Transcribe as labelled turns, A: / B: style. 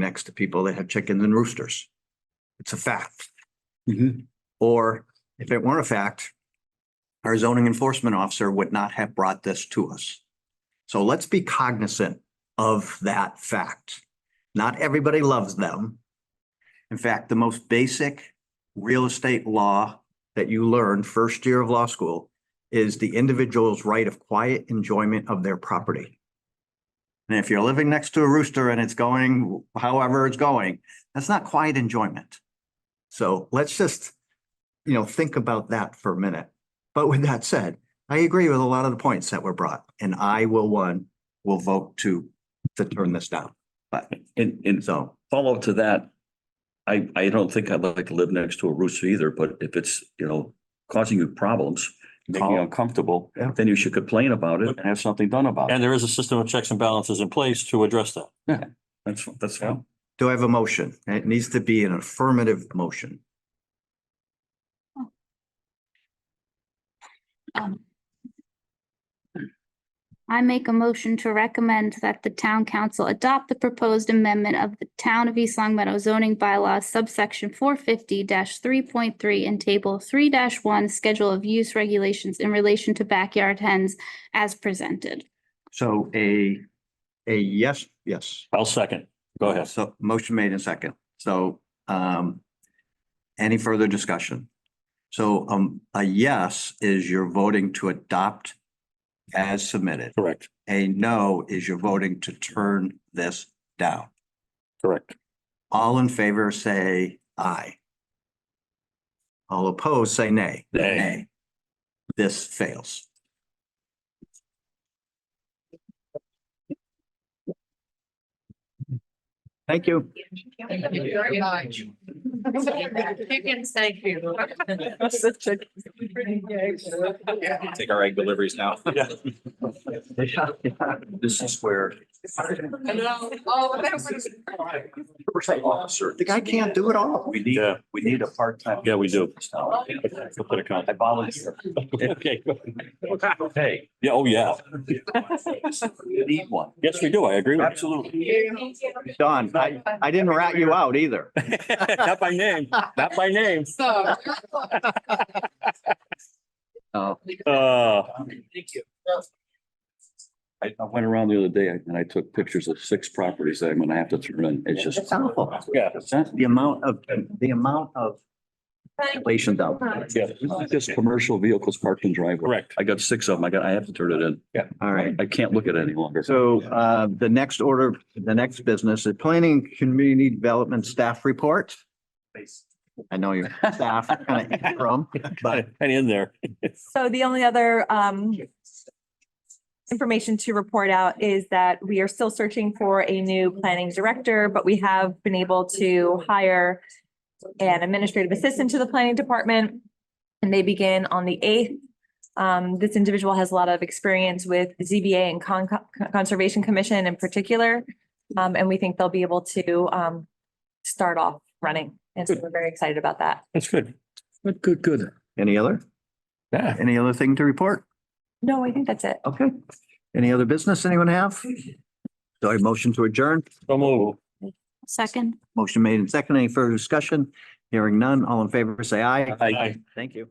A: next to people that have chickens and roosters. It's a fact.
B: Mhm.
A: Or if it weren't a fact, our zoning enforcement officer would not have brought this to us. So let's be cognizant of that fact. Not everybody loves them. In fact, the most basic real estate law that you learn first year of law school is the individual's right of quiet enjoyment of their property. And if you're living next to a rooster and it's going however it's going, that's not quiet enjoyment. So let's just, you know, think about that for a minute. But with that said, I agree with a lot of the points that were brought and I will one, will vote to, to turn this down. But
B: And, and
A: so,
B: follow up to that, I, I don't think I'd like to live next to a rooster either, but if it's, you know, causing you problems, making you
C: Call.
B: uncomfortable,
A: Yeah.
B: then you should complain about it and have something done about it.
C: And there is a system of checks and balances in place to address that.
B: That's, that's fine.
A: do I have a motion? It needs to be an affirmative motion.
D: Um, I make a motion to recommend that the town council adopt the proposed amendment of the town of East Long Meadow zoning bylaw subsection four fifty three point three and table three one, schedule of use regulations in relation to backyard hens as presented.
A: So a, a yes, yes.
C: I'll second. Go ahead.
A: So motion made in second. So um any further discussion? So um a yes is you're voting to adopt as submitted.
C: Correct,
A: A no is you're voting to turn this down.
C: correct.
A: All in favor, say aye. All opposed, say nay.
C: Nay.
A: This fails. Thank you.
E: Thank you very much. Chickens, thank you.
F: Take our egg deliveries now.
B: This is where.
E: Oh, that was.
B: Officer.
A: The guy can't do it all.
B: We need,
C: Yeah.
B: we need a part-time.
C: Yeah, we do. We'll put a con-
B: I volunteer.
C: Okay.
B: Hey.
C: Yeah, oh, yeah.
B: We need one.
C: Yes, we do. I agree with
B: Absolutely.
A: Don, I, I didn't rat you out either.
C: you. Not by name, not by name.
E: So.
A: Oh.
C: Uh,
B: I, I went around the other day and I took pictures of six properties that I'm gonna have to turn in. It's just.
A: It's awful.
C: yeah,
B: It's not-
A: The amount of, the amount of relation out.
C: yeah,
B: it's not Just commercial vehicles parked in driveway.
C: correct.
B: I got six of them. I got, I have to turn it in.
A: All right.
B: I can't look at it any longer.
A: So uh, the next order, the next business is planning and community development staff report. I know your staff kind of from, but
C: And in there.
G: So the only other um information to report out is that we are still searching for a new planning director, but we have been able to hire an administrative assistant to the planning department, and they begin on the eighth. Um, this individual has a lot of experience with ZBA and Con- Conservation Commission in particular. Um, and we think they'll be able to um start off running, and so we're very excited about that.
C: That's good.
B: Good, good, good.
A: any other,
C: Yeah.
A: any other thing to report?
G: No, I think that's it.
A: Okay. Any other business anyone have? Sorry, motion to adjourn.
C: So move.
D: Second.
A: Motion made and second. Any further discussion? Hearing none. All in favor, say aye.
C: Aye.
A: Thank you.